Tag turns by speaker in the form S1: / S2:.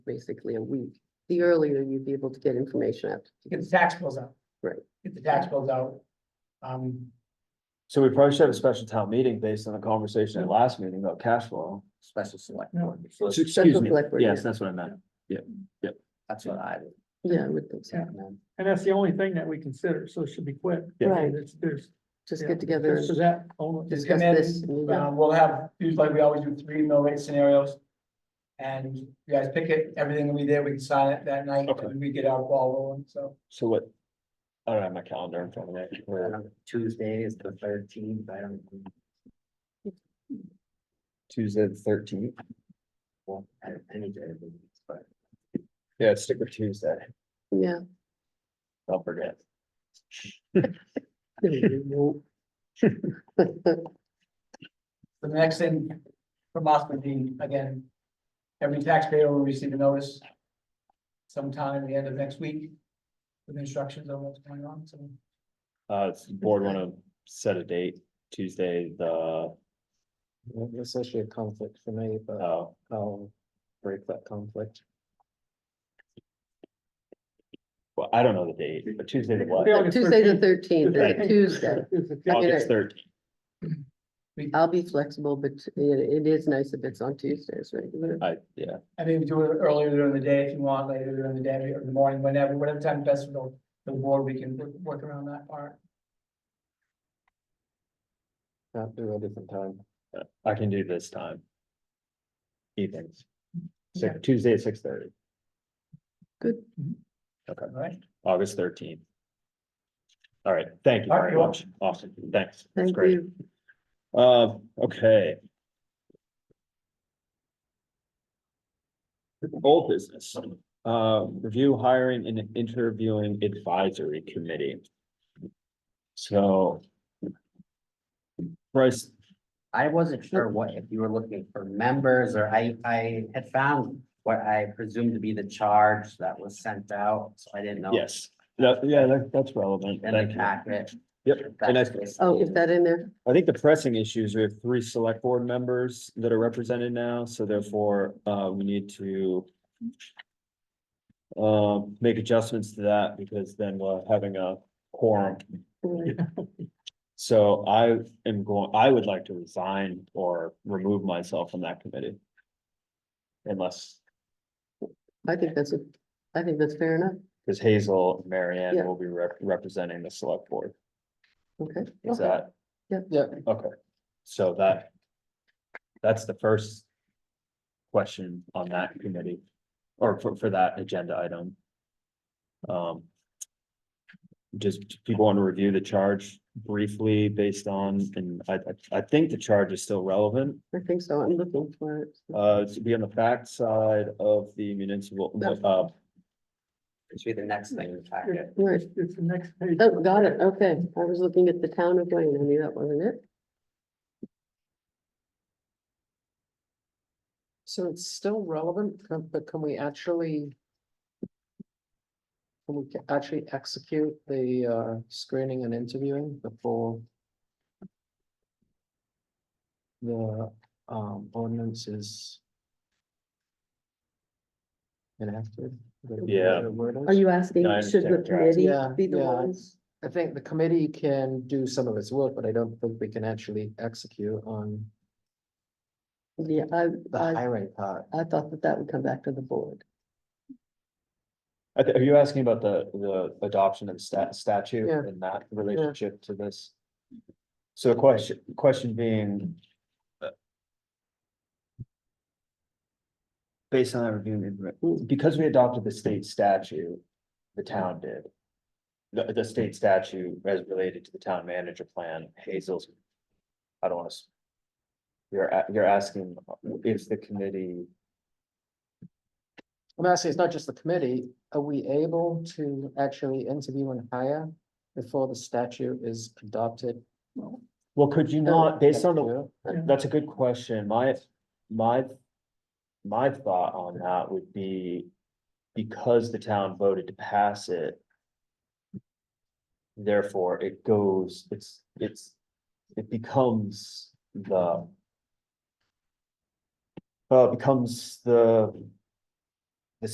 S1: basically a week. The earlier you'd be able to get information out.
S2: to get the tax bills out.
S1: Right.
S2: Get the tax bills out. Um,
S3: So we probably should have a special town meeting based on the conversation at last meeting about cash flow.
S4: special select
S2: No.
S4: board. So
S3: Excuse me,
S1: select board,
S3: yes,
S1: yeah.
S3: that's what I meant.
S4: That's what I would
S1: Yeah, I would think so.
S4: recommend.
S5: And that's the only thing that we consider, so it should be quick.
S3: Yeah.
S1: Right.
S5: There's, there's,
S1: Just
S5: Yeah.
S1: get together
S5: there's
S1: and
S5: that only.
S2: just come
S1: discuss this.
S2: in,
S1: and move on.
S2: um, we'll have, usually like we always do, three mill rate scenarios. And you guys pick it, everything will be there, we can sign it that night,
S3: Okay.
S2: and we get our ball rolling, so.
S3: So what? I don't have my calendar in front of me.
S4: I don't know, Tuesday is the thirteenth, I don't.
S3: Tuesday the thirteenth.
S4: well, I don't- Any day of the week, but
S3: Yeah, stick with Tuesday.
S1: Yeah.
S3: Don't forget.
S2: The next thing from us would be, again, every taxpayer will receive a notice sometime at the end of next week with instructions on what's going on, so.
S3: Uh, does the board want to set a date, Tuesday, the,
S6: It's actually a conflict for me, but
S3: uh,
S6: I'll break that conflict.
S3: well, I don't know the date, but Tuesday the what?
S5: August
S1: Tuesday the
S5: 13th.
S1: thirteenth,
S3: Right.
S1: Tuesday.
S3: August thirteenth.
S1: I'll be flexible, but it, it is nice if it's on Tuesdays, right?
S3: I, yeah,
S2: I mean, do it earlier during the day if you want, later during the day or in the morning, whenever, whatever time best for the- the board, we can work- work around that part.
S6: Not do a different time.
S3: I can do this time. Evenings. So
S2: Yeah.
S3: Tuesday at six thirty,
S1: Good.
S2: All right,
S3: August thirteenth. All right, thank you
S2: All right,
S3: very
S2: you're
S3: much. Awesome, thanks. That's
S1: Thank
S3: great.
S1: you.
S3: Uh, okay. Old business, uh, review hiring and interviewing advisory committee. So. Bryce,
S4: I wasn't sure what, if you were looking for members or I, I had found what I presumed to be the charge that was sent out, so I didn't know.
S3: yes, that, yeah, that, that's relevant.
S4: In the
S3: Thank you.
S4: packet.
S3: Yep,
S4: if
S3: and I-
S4: that's-
S1: Oh, is that in there?
S3: I think the pressing issue is we have three select board members that are represented now, so therefore, uh, we need to. Um, make adjustments to that because then we're having a quorum.
S1: Right.
S3: So I am going, I would like to resign or remove myself from that committee. Unless,
S1: I think that's, a- I think that's fair enough.
S3: because Hazel and Mary Ann
S1: Yeah.
S3: will be rep- representing the select board.
S1: Okay.
S3: Is that?
S1: Yeah.
S6: Yeah.
S3: Okay, so that. That's the first. Question on that committee or for, for that agenda item. Um. Just people want to review the charge briefly based on, and I, I, I think the charge is still relevant.
S1: I think so. I'm looking for it.
S3: Uh, to be on the back side of the municipal, uh,
S4: It should be the next thing in the packet.
S1: Right.
S5: It's the next page.
S1: Oh, got it. Okay. I was looking at the town of Wayne. I knew that wasn't it.
S6: So it's still relevant, can- but can we actually? Can we ca- actually execute the uh screening and interviewing before? The um ordinance is. Enacted. Is that
S3: Yeah.
S6: the word is?
S1: Are you asking,
S3: I
S1: should the
S3: understand, right.
S1: committee
S6: Yeah,
S1: be the
S6: yeah.
S1: ones?
S6: I think the committee can do some of its work, but I don't think we can actually execute on
S1: Yeah, I,
S6: the
S1: I,
S6: hiring part.
S1: I thought that that would come back to the board.
S3: I thi- are you asking about the, the adoption of stat statute
S6: Yeah.
S3: and that relationship to this? So the question, question being. uh, Based on that review, because we adopted the state statute, the town did. The, the state statute as related to the town manager plan, Hazel's. I don't wanna. s- You're, a- you're asking if the committee,
S6: I'm asking, it's not just the committee, are we able to actually interview and hire before the statute is adopted?
S3: well, could you not, based on the,
S5: Yeah.
S3: That's a good question. My, my, my thought on that would be because the town voted to pass it. Therefore, it goes, it's, it's, it becomes the uh, becomes the